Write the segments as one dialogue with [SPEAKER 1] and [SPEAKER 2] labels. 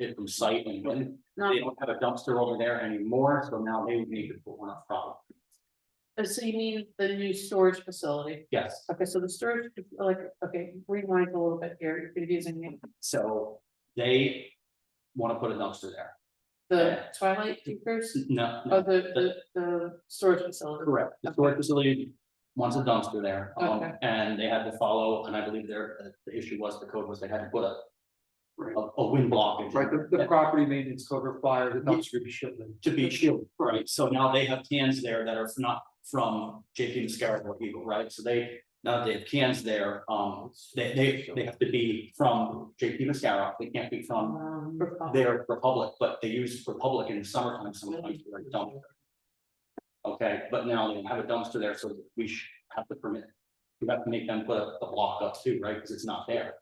[SPEAKER 1] it from site and when
[SPEAKER 2] Not,
[SPEAKER 1] they don't have a dumpster over there anymore, so now they would need to put one up front.
[SPEAKER 2] uh, so you mean the new storage facility?
[SPEAKER 1] Yes,
[SPEAKER 2] Okay, so the storage, like, okay, rewind a little bit here, you're confusing me.
[SPEAKER 1] so they want to put a dumpster there.
[SPEAKER 2] The Twilight Acres,
[SPEAKER 1] No,
[SPEAKER 2] oh,
[SPEAKER 1] no,
[SPEAKER 2] the, the, the storage facility.
[SPEAKER 1] correct. The storage facility wants a dumpster there. um,
[SPEAKER 2] Okay.
[SPEAKER 1] And they had to follow, and I believe their, uh, the issue was the code was they had to put a
[SPEAKER 3] Right.
[SPEAKER 1] a, a wind block. in.
[SPEAKER 3] Right, the, the property maintenance code requires the dumpster to be shipped in.
[SPEAKER 1] To be shielded, right, so now they have cans there that are not from JP Mascara or Eagle, right, so they, now that they have cans there, um, they, they, they have to be from JP Mascara, they can't be from
[SPEAKER 2] Um,
[SPEAKER 1] their Republic, but they use Republic in the summertime sometimes for a dumpster. Okay, but now they have a dumpster there, so we should have to permit, we have to make them put a, a block up too, right, because it's not there.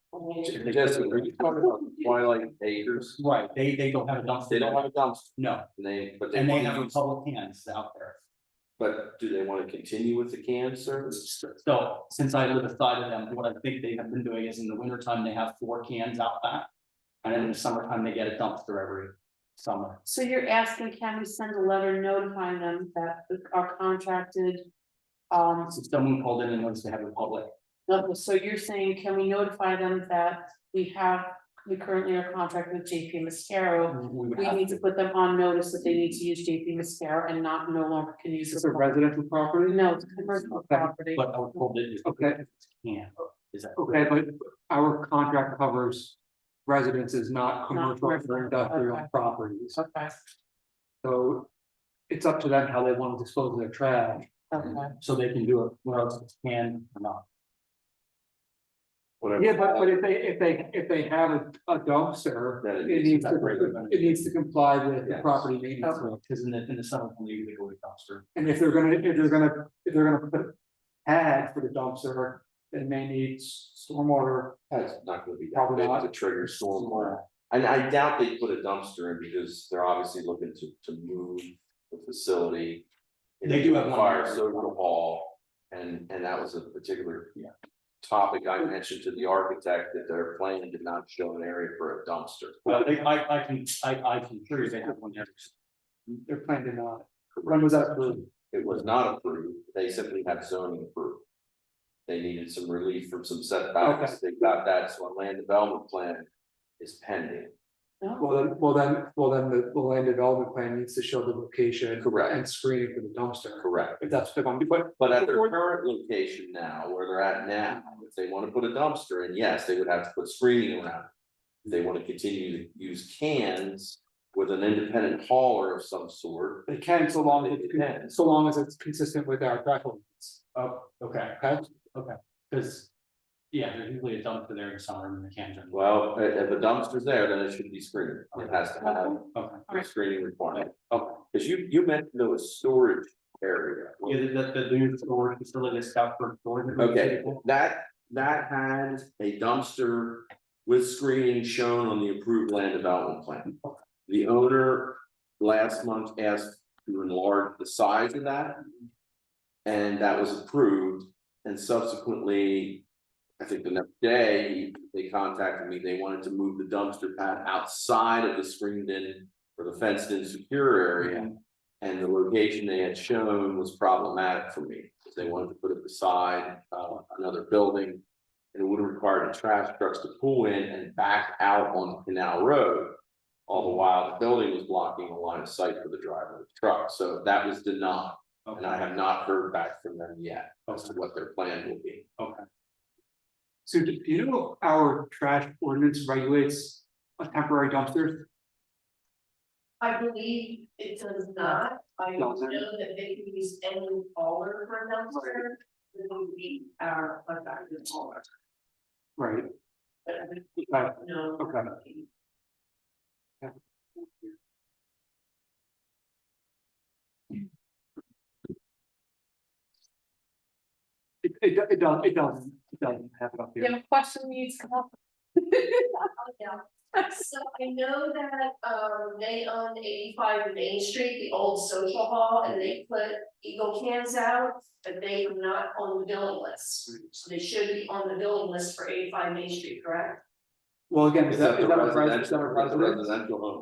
[SPEAKER 4] Jessica, are you talking about Twilight Acres?
[SPEAKER 1] Right, they, they don't have a dumpster.
[SPEAKER 4] They don't have a dumpster,
[SPEAKER 1] No,
[SPEAKER 4] and they, but they
[SPEAKER 1] and they
[SPEAKER 4] want to
[SPEAKER 1] have
[SPEAKER 4] use-
[SPEAKER 1] Republic cans out there.
[SPEAKER 4] but do they wanna continue with the can service?
[SPEAKER 1] So since I live aside of them, what I think they have been doing is in the wintertime, they have four cans out back. And in the summertime, they get a dumpster every summer.
[SPEAKER 2] So you're asking, can we send a letter notifying them that our contracted? Um,
[SPEAKER 1] So someone called in and noticed they have Republic.
[SPEAKER 2] no, so you're saying, can we notify them that we have, we currently are contracted with JP Mascaro?
[SPEAKER 1] We would
[SPEAKER 2] We
[SPEAKER 1] have
[SPEAKER 2] need to put them on notice that they need to use JP Mascara and not no longer can use.
[SPEAKER 3] Is
[SPEAKER 2] this
[SPEAKER 3] this a residential property?
[SPEAKER 2] No, it's commercial property.
[SPEAKER 1] But I would hold it.
[SPEAKER 3] Okay,
[SPEAKER 1] Yeah, is that?
[SPEAKER 3] okay, but our contract covers residences, not commercial
[SPEAKER 2] commercial,
[SPEAKER 3] or industrial
[SPEAKER 2] okay.
[SPEAKER 3] properties,
[SPEAKER 2] Okay,
[SPEAKER 3] so. It's up to them how they want to dispose of their trash.
[SPEAKER 2] okay.
[SPEAKER 1] So they can do it where else it's can or not.
[SPEAKER 4] Whatever.
[SPEAKER 3] Yeah, but, but if they, if they, if they have a a dumpster,
[SPEAKER 4] Then it
[SPEAKER 3] it
[SPEAKER 4] needs
[SPEAKER 3] needs
[SPEAKER 1] to
[SPEAKER 3] to,
[SPEAKER 1] separate.
[SPEAKER 3] it needs to comply with the
[SPEAKER 4] Yes.
[SPEAKER 3] property maintenance.
[SPEAKER 2] Okay.
[SPEAKER 3] law.
[SPEAKER 1] Because in the, in the summer, they usually go to dumpster.
[SPEAKER 3] And if they're gonna, if they're gonna, if they're gonna put ad for the dumpster, then they need stormwater.
[SPEAKER 4] That's not gonna be.
[SPEAKER 3] Probably not.
[SPEAKER 4] To trigger
[SPEAKER 2] uh,
[SPEAKER 4] stormwater, and I doubt they put a dumpster in because they're obviously looking to, to move the facility.
[SPEAKER 1] They do have one.
[SPEAKER 4] Fire social hall, and, and that was a particular.
[SPEAKER 1] Yeah.
[SPEAKER 4] Topic I mentioned to the architect that their plan did not show an area for a dumpster.
[SPEAKER 1] Well, they, I, I can, I, I can sure they have one there.
[SPEAKER 3] They're planning to not. When was that approved?
[SPEAKER 4] It was not approved, they simply had zoning approved. They needed some relief from some setbacks, they got that, so a land development plan is pending.
[SPEAKER 3] Well, then, well, then, well, then the, the land development plan needs to show the location.
[SPEAKER 4] Correct.
[SPEAKER 3] And screening for the dumpster.
[SPEAKER 4] Correct,
[SPEAKER 3] If that's what they want to do, but
[SPEAKER 4] but at their current location now, where they're at now, if they wanna put a dumpster in, yes, they would have to put screening around. it. They wanna continue to use cans with an independent hauler of some sort,
[SPEAKER 3] they can so long, as it's
[SPEAKER 4] Yeah.
[SPEAKER 3] con- so long as it's consistent with our guidelines.
[SPEAKER 1] Oh, okay,
[SPEAKER 3] Okay,
[SPEAKER 1] because, yeah, there's usually a dumpster there in summer and the cans are.
[SPEAKER 4] well, i- if a dumpster's there, then it should be screened, it has
[SPEAKER 3] uh,
[SPEAKER 4] to have
[SPEAKER 1] Okay,
[SPEAKER 4] a screening requirement.
[SPEAKER 1] okay.
[SPEAKER 4] Cause you, you meant there was storage area.
[SPEAKER 1] Yeah, the, the, the new storage facility is out for storage.
[SPEAKER 4] Okay, that, that had a dumpster with screening shown on the approved land development plan. The owner last month asked to enlarge the size of that. And that was approved, and subsequently, I think the next day, they contacted me, they wanted to move the dumpster pad outside of the screened in. Or the fenced in secure area, and the location they had shown was problematic for me, because they wanted to put it beside uh another building. And it would have required the trash trucks to pull in and back out on Canal Road. All the while, the building was blocking the line of sight for the driver of the truck, so that was denied, and I have not heard back from them yet as to what their plan will be.
[SPEAKER 3] so do do you know our trash ordinance regulates a temporary dumpster?
[SPEAKER 5] I believe it does not, I know
[SPEAKER 3] Doesn't.
[SPEAKER 5] that they can use any hauler for a dumpster. It would be our contracted hauler,
[SPEAKER 3] Right,
[SPEAKER 5] but I don't
[SPEAKER 3] okay,
[SPEAKER 5] know.
[SPEAKER 3] Okay. it it do- it does, it doesn't, it doesn't have it up
[SPEAKER 2] You
[SPEAKER 3] here.
[SPEAKER 2] have a question needs to come up.
[SPEAKER 5] Yeah, so I know that, um, they own eighty-five Main Street, the old social hall, and they put Eagle cans out, but they are not on the billing list. So they should be on the billing list for eighty-five Main Street, correct?
[SPEAKER 3] Well, again,
[SPEAKER 4] Is
[SPEAKER 3] is that,
[SPEAKER 4] that
[SPEAKER 3] is
[SPEAKER 4] the
[SPEAKER 3] that a, res- is
[SPEAKER 4] residential,
[SPEAKER 3] that a
[SPEAKER 4] that's a
[SPEAKER 3] residence?
[SPEAKER 4] residential home?